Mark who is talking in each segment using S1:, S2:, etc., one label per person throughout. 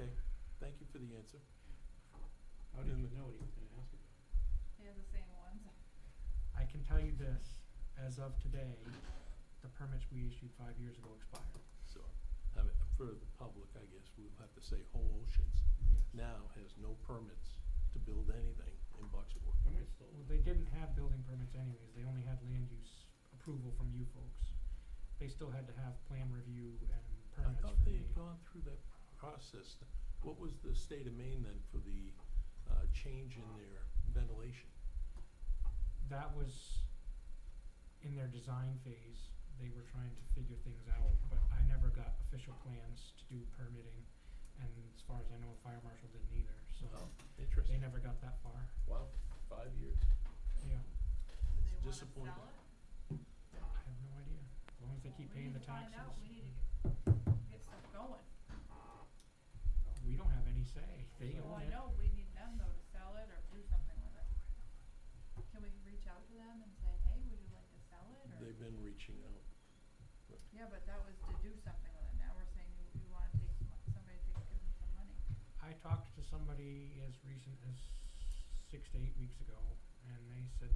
S1: Thank you for the answer.
S2: How did you know what he was gonna ask about?
S3: They have the same ones.
S4: I can tell you this, as of today, the permits we issued five years ago expired.
S1: So, I mean, for the public, I guess, we'll have to say Whole Oceans
S4: Yes.
S1: now has no permits to build anything in Bucksport.
S2: Somebody stole it.
S4: Well, they didn't have building permits anyways, they only had land use approval from you folks. They still had to have plan review and
S1: I
S4: permits
S1: thought
S4: for
S1: they
S4: the,
S1: had gone through that process. What was the state of Maine then for the, uh, change in their ventilation?
S4: that was in their design phase, they were trying to figure things out, but I never got official plans to do permitting. And as far as I know, the fire marshal didn't either, so
S1: Oh,
S4: they
S1: Interesting.
S4: never got that far,
S1: Wow, five years.
S3: Do they
S4: yeah,
S3: wanna sell
S1: disappointing.
S3: it?
S4: I have no idea, as long as they keep
S3: Well,
S4: paying the
S3: We need to find
S4: taxes.
S3: out, we need to get, get stuff going.
S4: We don't have any say, they
S3: Well, I
S4: own it,
S3: know, we need them though to sell it or do something with it. Can we reach out to them and say, hey, would you like to sell it or?
S1: They've been reaching out.
S3: Yeah, but that was to do something with it. Now we're saying you, you wanna take some, mon- somebody to give them some money.
S4: I talked to somebody as recent as six to eight weeks ago, and they said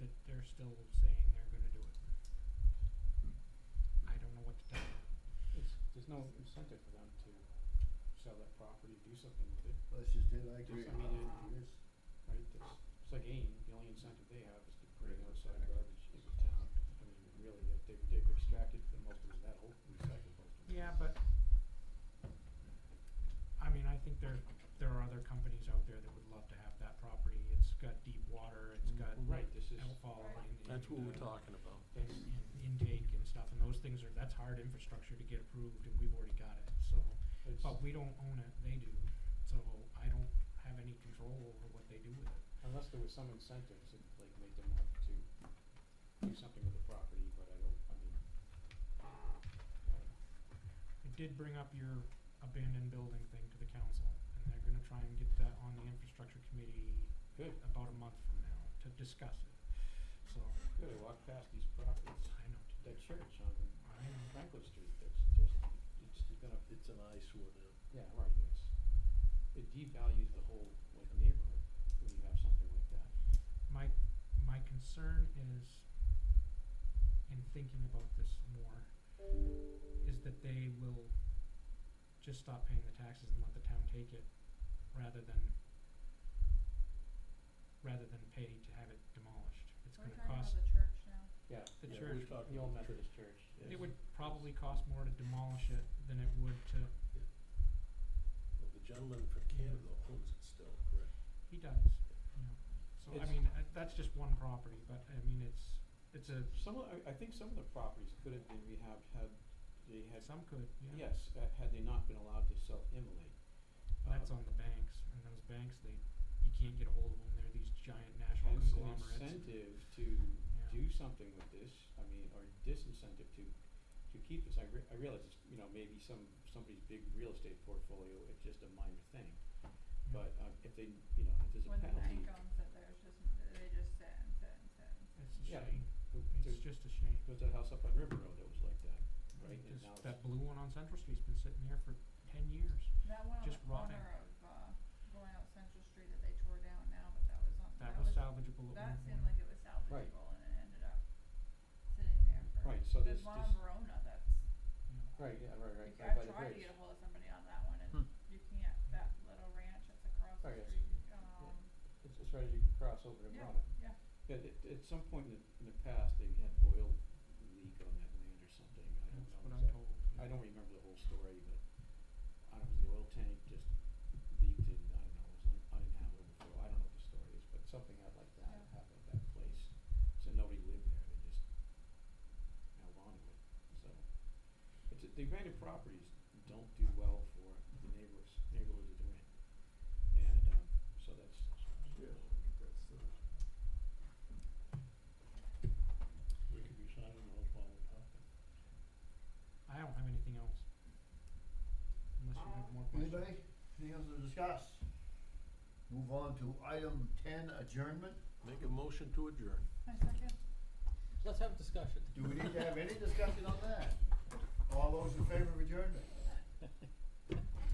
S4: that they're still saying they're gonna do it. I don't know what to tell you,
S2: It's, there's no incentive for them to sell that property, do something with it,
S5: Well, that's just it, I agree.
S2: Just, I mean,
S5: Yes.
S2: right? It's, it's like AIM, the only incentive they have is to bring outside garbage into town. I mean, really, they- they've, they've extracted the most of that whole, recycled most of it.
S4: yeah, but I mean, I think there, there are other companies out there that would love to have that property, it's got deep water, it's got
S1: Mhm.
S2: Mm, Right, this is,
S4: outfall
S3: Right.
S4: and.
S1: That's what
S4: and,
S1: we're
S4: uh,
S1: talking about.
S4: and in- intake and stuff, and those things are, that's hard infrastructure to get approved, and we've already got it, so.
S2: it's,
S4: But we don't own it, they do, so I don't have any control over what they do with it.
S2: unless there was some incentives that like made them want to do something with the property, but I don't, I mean, I don't know.
S4: I did bring up your abandoned building thing to the council, and they're gonna try and get that on the infrastructure committee
S2: Good.
S4: about a month from now to discuss it, so
S2: Good, I walked past these properties,
S4: I know.
S2: that church on
S4: I know.
S2: Franklin Street, that's just, it's just gonna,
S1: It's an eyesore now.
S2: yeah, right, it's, it devalues the whole, like, neighborhood when you have something like that.
S4: My, my concern is, in thinking about this more, is that they will just stop paying the taxes and let the town take it, rather than, rather than pay to have it demolished. It's
S3: We're
S4: gonna
S3: talking about
S4: cost
S3: the church now.
S2: Yeah,
S4: the
S1: Yeah,
S4: church,
S1: we're talking
S2: the old
S1: about
S2: Methodist church.
S1: Yeah.
S4: it would probably cost more to demolish it than it would to,
S1: Well, the gentleman from Canada owns it still, correct?
S4: he does, you know. So, I
S2: It's-
S4: mean, uh, that's just one property, but I mean, it's, it's a,
S2: Some of, I, I think some of the properties could have been rehabbed had they had,
S4: some could, yeah.
S2: yes, uh, had they not been allowed to self-immolate.
S4: That's
S2: Um,
S4: on the banks, and those banks, they, you can't get a hold of them, they're these giant national
S2: hence an
S4: conglomerates.
S2: incentive to do something with this, I mean, or disincentive to, to keep this, I re- I realize it's, you know, maybe some, somebody's big real estate portfolio, it's just a minor thing.
S4: Mm.
S2: But, um, if they, you know, if there's a
S3: When the
S2: penalty,
S3: bank owns it, there's just, they just sit and sit and sit and sit.
S4: It's a
S2: Yeah.
S4: shame,
S2: who-
S4: it's
S2: there's,
S4: just a shame.
S2: there's that house up on River Road that was like that, right, and
S4: Just
S2: now it's.
S4: that blue one on Central Street's been sitting there for ten years,
S3: That one on the
S4: Just rotting.
S3: corner of, uh, going out Central Street that they tore down now, but that was on,
S4: that
S3: that
S4: was
S3: was,
S4: salvageable at
S3: that
S4: one
S3: seemed
S4: point.
S3: like it was
S2: Right.
S3: salvageable and it ended up sitting there for.
S2: Right, so
S3: There's
S2: there's
S3: one on
S2: just-
S3: Verona that's,
S4: Yeah.
S2: Right, yeah, right, right,
S3: you
S2: right
S3: can,
S2: by
S3: I
S2: the
S3: tried to
S2: bridge.
S3: get ahold of somebody on that one and
S1: Hmm.
S3: you can't, that little ranch that's across
S2: Oh,
S3: the
S2: yes.
S3: street, um,
S2: It's, it's right as you cross over to
S3: Yeah,
S2: Verona.
S3: yeah.
S2: But at, at some point in the, in the past, they had oil leak on that land or something, I don't know
S4: That's what I'm
S2: exactly.
S4: told.
S2: I don't remember the whole story, but I don't know, the oil tank just leaked and, I don't know, it was un- uninhabitable for, I don't know what the story is, but something out like that
S3: Yeah.
S2: happened at that place. So nobody lived there, they just held on to it, so. It's, a- the abandoned properties don't do well for the neighbors, neighborhood that they're in. And, um, so that's,
S1: Yeah, I think that's the. We could be signing those while we're talking.
S2: e-
S4: I don't have anything else. Unless you
S3: Uh,
S4: have more questions.
S5: Anybody, anything else to discuss? Move on to item ten, adjournment.
S1: Make a motion to adjourn.
S3: my second
S6: Let's have a discussion.
S5: Do we need to have any discussion on that? All those in favor of adjournment?